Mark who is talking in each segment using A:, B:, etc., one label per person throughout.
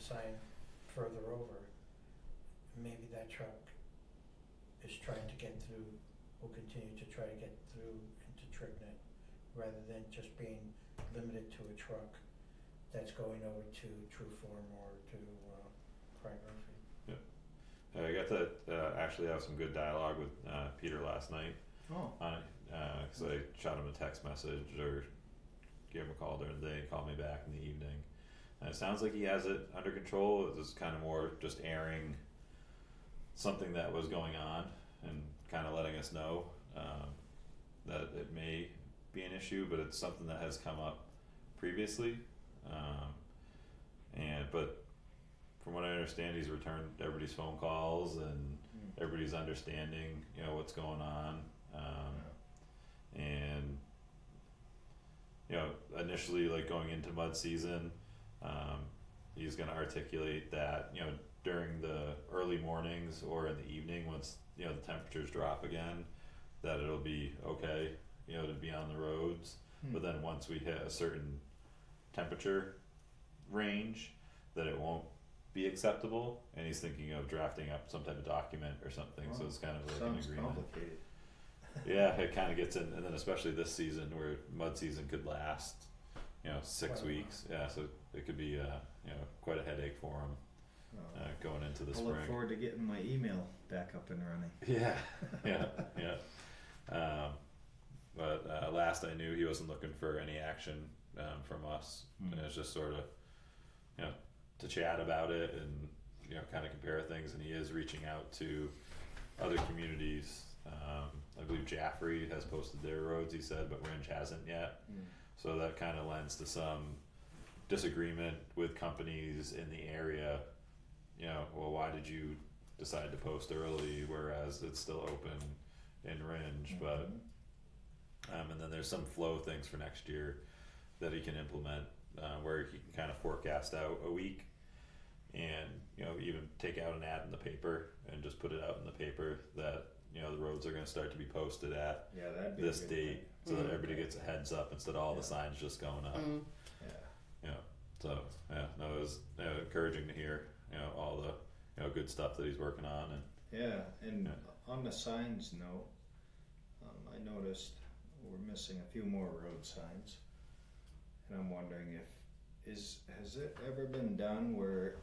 A: sign further over, maybe that truck is trying to get through, will continue to try to get through into Trignett, rather than just being limited to a truck that's going over to True Form or to uh Pride Murphy.
B: I got to uh, actually have some good dialogue with uh, Peter last night
C: Oh,
B: on it, uh 'cause I shot him a text message or gave him a call during the day, he called me back in the evening. And it sounds like he has it under control. It's just kind of more just airing something that was going on and kind of letting us know um, that it may be an issue, but it's something that has come up previously. Um, and but from what I understand, he's returned everybody's phone calls and
C: Mm.
B: everybody's understanding, you know, what's going on. Um, and you know initially like going into mud season um, he's going to articulate that you know during the early mornings or in the evening once you know the temperatures drop again that it'll be okay you know to be on the roads
C: Hmm.
B: but then once we hit a certain temperature range that it won't be acceptable and he's thinking of drafting up some type of document or something so
C: Wow.
B: it's kind of like an
C: sounds
B: agreement
C: complicated.
B: yeah, it kind of gets in, and then especially this season where mud season could last, you know, six
A: Quite a while.
B: weeks. Yeah, so it could be, uh, you know, quite a headache for him
C: Oh.
B: uh, going into the
C: I
B: spring.
C: look forward to getting my email back up and running.
B: Yeah, yeah, yeah. Um, but uh, last I knew, he wasn't looking for any action um, from us. And it was just sort of, you know, to chat about it and you know, kind of compare things. And he is reaching out to other communities. Um, I believe Jaffrey has posted their roads. He said, but Ringe hasn't yet.
C: Hmm.
B: So that kind of lends to some disagreement with companies in the area. You know, well, why did you decide to post early, whereas it's still open in Ringe, but
C: Mhm.
B: um, and then there's some flow things for next year that he can implement uh, where he can kind of forecast out a week and you know even take out an ad in the paper and just put it out in the paper that you know the roads are going to start to be posted at
C: yeah, that'd be a
B: this
C: good
B: date
C: thing.
B: so that
D: Mhm.
B: everybody gets a heads up instead of all
C: Yeah.
B: the signs just going up
D: Mm.
C: Yeah.
B: so yeah no it was you know, encouraging to hear you know all the you know good stuff that he's working on and
C: Yeah, and
B: Yeah.
C: on the signs note, um, I noticed we're missing a few more road signs. And I'm wondering if, is, has it ever been done where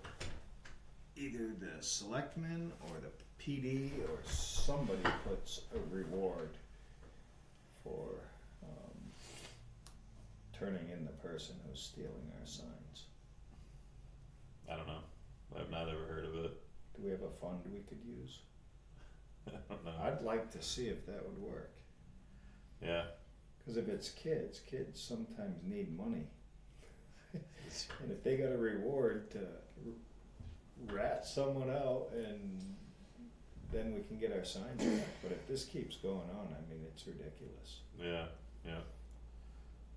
C: either the selectmen or the PD or somebody puts a reward for, um, turning in the person who's stealing our signs?
B: I don't know I've not ever heard of it
C: Do we have a fund we could use?
B: I don't know
C: I'd like to see if that would work.
B: yeah
C: Because if it's kids, kids sometimes need money. And if they got a reward to r- rat someone out and then we can get our signs back. But if this keeps going on, I mean, it's ridiculous.
B: Yeah, yeah.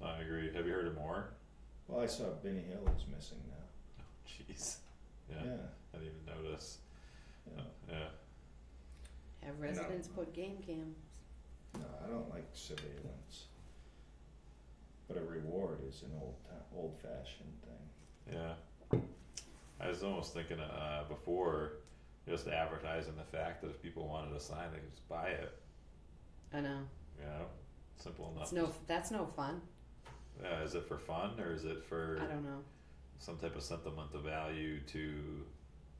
B: I agree. Have you heard of more? Oh,
C: Well, I saw Benny Hill is missing now.
B: Jeez. Yeah,
C: Yeah.
B: I didn't even notice. Oh,
C: yeah.
B: Yeah,
D: Have residents put game cams.
C: No, I don't like surveillance. But a reward is an old time, old fashioned thing.
B: yeah. I was almost thinking uh, before just advertising the fact that if people wanted a sign, they could just buy it.
D: I know.
B: You know, simple enough.
D: It's no. That's no fun.
B: yeah, is it for fun or is it for
D: I don't know.
B: some type of sentimental value to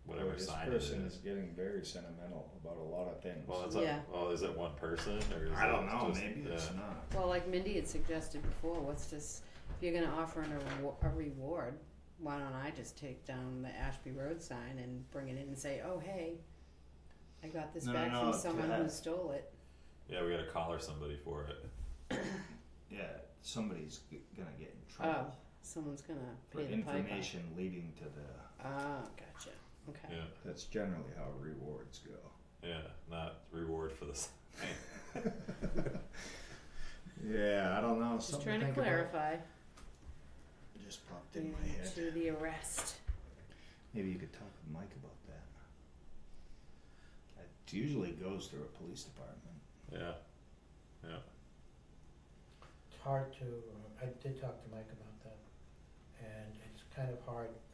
B: whatever
C: Boy, this
B: sign it is?
C: person is getting very sentimental about a lot of things.
B: Well, it's
D: Yeah.
B: like, well, is it one person or is
C: I don't
B: it
C: know.
B: just-
C: maybe it's
B: yeah.
C: not.
D: Well, like Mindy had suggested before, what's this? If you're going to offer an, a reward, why don't I just take down the Ashby Road sign and bring it in and say, "Oh, hey, I got this
C: No,
D: back
C: no,
D: from
C: to
D: someone who
C: have-
D: stole it."
B: Yeah, we gotta collar somebody for it.
C: Yeah, somebody's g- gonna get in trouble
D: Someone's going to
C: for
D: pay Oh, the piper.
C: information leading to the.
D: Ah, gotcha. Okay.
B: Yeah.
C: That's generally how rewards go.
B: Yeah, not reward for the sign.
C: yeah, I don't know.
D: Just trying to clarify.
C: Just popped in my
D: Yeah, To
C: head.
D: the arrest.
C: Maybe you could talk with Mike about that. It usually goes through a police department.
B: Yeah,
A: uh, It's hard to, I did talk to Mike about that, and it's kind of hard